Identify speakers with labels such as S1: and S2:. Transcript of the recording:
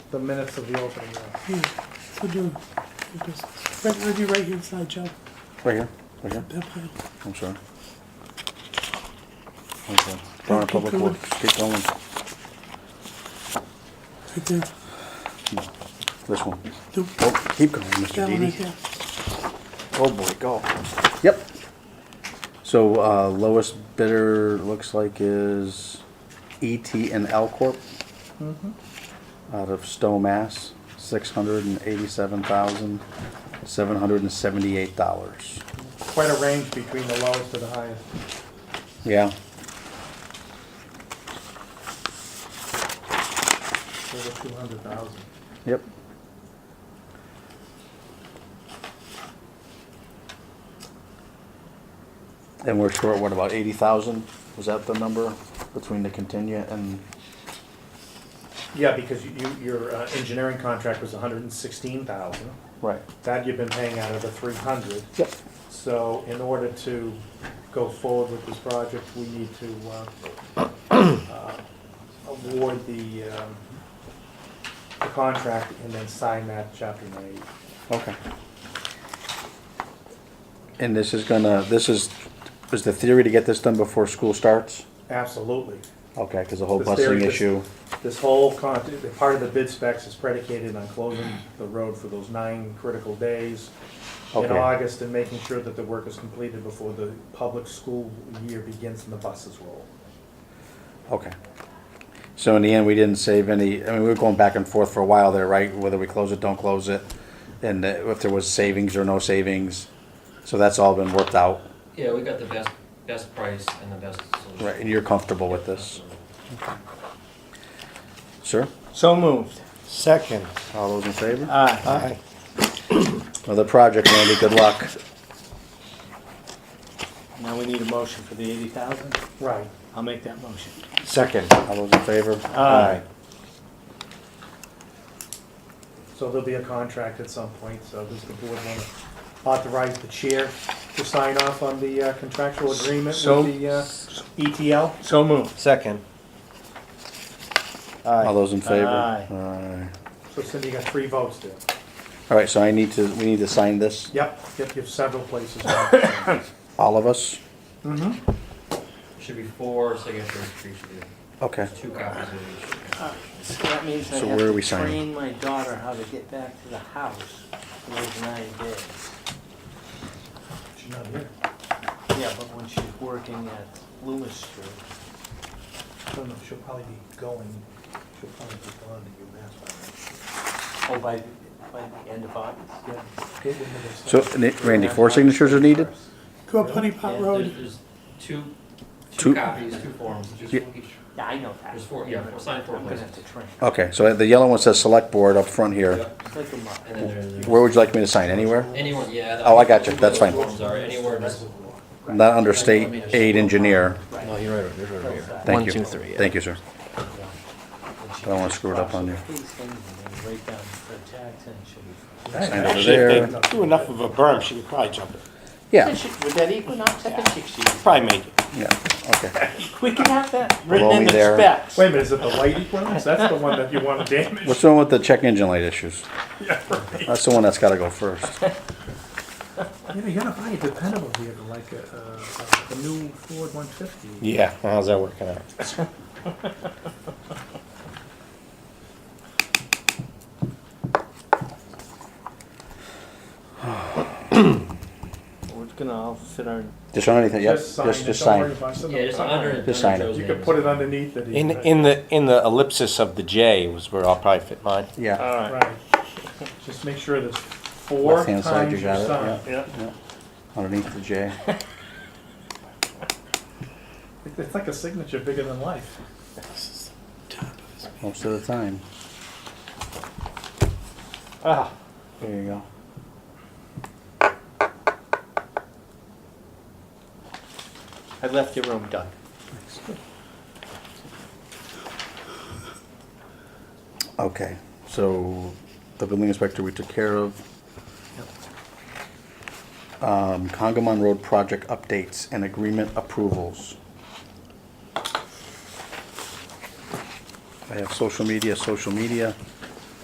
S1: the minutes of the opening. uh, yeah.
S2: Yeah, so do, because, right on your right-hand side, Joe,
S3: Right here, right here,
S2: that pile.
S3: I'm sorry. Okay, Brown
S2: keep
S3: Public
S2: going.
S3: Works, keep going,
S2: Right there.
S3: this one.
S2: Nope.
S3: Oh, keep going,
S2: That
S3: Mr.
S2: one right
S3: Didi.
S2: there.
S3: Oh, boy, go. Yep. So, uh, lowest bidder looks like is ET and L Corp.
S2: Mm-hmm.
S3: Out of Stowe, Mass, six hundred and eighty-seven thousand, seven hundred and seventy-eight dollars.
S1: Quite a range between the lowest to the highest.
S3: Yeah,
S1: Over two hundred thousand.
S3: yep. And we're short, what, about eighty thousand? Was that the number between the contingent and,
S1: Yeah, because you, you- your uh, engineering contract was hundred and sixteen thousand.
S3: right?
S1: That you've been paying out of the three hundred.
S3: Yep.
S1: So in order to go forward with this project, we need to uh, uh, award the um, the contract and then sign that chapter ninety.
S3: Okay. And this is gonna, this is, is the theory to get this done before school starts?
S1: Absolutely.
S3: Okay, because the whole
S1: The theory
S3: busing
S1: is-
S3: issue,
S1: This whole con, the part of the bid specs is predicated on closing the road for those nine critical days in
S3: Okay.
S1: August and making sure that the work is completed before the public school year begins and the buses roll.
S3: okay. So in the end, we didn't save any, I mean, we were going back and forth for a while there, right? Whether we close it, don't close it, and that- if there was savings or no savings. So that's all been worked out,
S4: Yeah, we got the best, best price and the best solution.
S3: right? And you're comfortable with this, sir?
S5: So moved. Second.
S3: All those in favor?
S5: Aye.
S3: Another Uh, project, Randy, good luck.
S5: Now we need a motion for the eighty thousand.
S1: Right.
S5: I'll make that motion. Second.
S3: All those in favor?
S5: Aye.
S1: So there'll be a contract at some point, so does the board want to authorize the chair to sign off on the uh, contractual agreement
S5: So-
S1: with the uh, ETL?
S5: So moved. Second.
S3: All those in favor?
S5: Aye.
S3: Aye.
S1: So Cindy, you got three votes there.
S3: All right, so I need to, we need to sign this,
S1: Yep, yep, you have several places.
S3: all of us?
S4: Should be four signatures for each of you,
S3: Okay,
S4: two copies of
S6: So that means I
S3: So
S6: have
S3: where are
S6: to
S3: we signing?
S6: train my daughter how to get back to the house in those nine days.
S1: She's not here.
S6: Yeah, but when she's working at Loomis Street.
S1: I don't know, she'll probably be going, she'll probably be gone to
S6: Oh, by, by the end of August? Yeah.
S1: UMass by then.
S3: so Ni- Eh, Randy, four signatures are needed?
S2: Go up Honey Pot
S4: each. There's,
S2: Road.
S4: there's two,
S3: Two-
S4: two copies, two forms, just
S3: Yeah.
S4: each.
S6: Yeah, I know that.
S4: There's four, yeah, four, sign four
S6: I'm gonna
S4: places.
S6: have to train. her.
S3: Okay, so the yellow one says select board up front here.
S4: Yep,
S6: It's like a month.
S4: And then there's
S3: Where would you like me to sign, anywhere?
S4: anyone, yeah. the-
S3: Oh, I got you. That's fine.
S4: those Forms are anywhere, just
S3: Not under state aid engineer.
S6: No,
S5: you're right, you're right here.
S3: Thank you. Thank you, sir. I don't wanna screw it up on you.
S6: Please send me and write down the tax and she'll
S3: Sign over there.
S5: they do enough of a berm, she could probably jump it.
S3: Yeah,
S6: be. Would that equinox, I can fix you.
S5: Probably make it.
S3: yeah, okay.
S6: We can have that
S3: Below
S6: uh, written
S3: me
S6: in the
S3: there.
S6: specs.
S1: Wait a minute, is it the light equinox? That's the one that you want to damage.
S3: What's wrong with the check engine light issues? That's the one that's gotta go first.
S1: You know, you gotta buy a dependable vehicle like a, uh, a, a new Ford 150.
S5: Yeah, how's that working out?
S6: We're gonna all fit our
S3: Just on anything, yep,
S1: Just sign
S3: just,
S1: it,
S3: just
S1: don't worry
S3: sign.
S1: about it.
S4: Yeah, just under.
S3: Just sign it.
S1: You could put it underneath it.
S5: In,
S1: even.
S5: in the, in the ellipsis of the J was where I'll probably fit mine.
S3: Yeah,
S1: Right. Just make sure there's four
S3: Left-hand side,
S1: times
S3: you
S1: your
S3: got it,
S1: sign. Yeah.
S3: underneath the J.
S1: It- It's like a signature bigger than life.
S3: Most of the time.
S5: Ah.
S3: There you go.
S5: I left your room done.
S3: Okay, so the building inspector we took care of. Um, Congamon Road project updates and agreement approvals. I have social media, social media.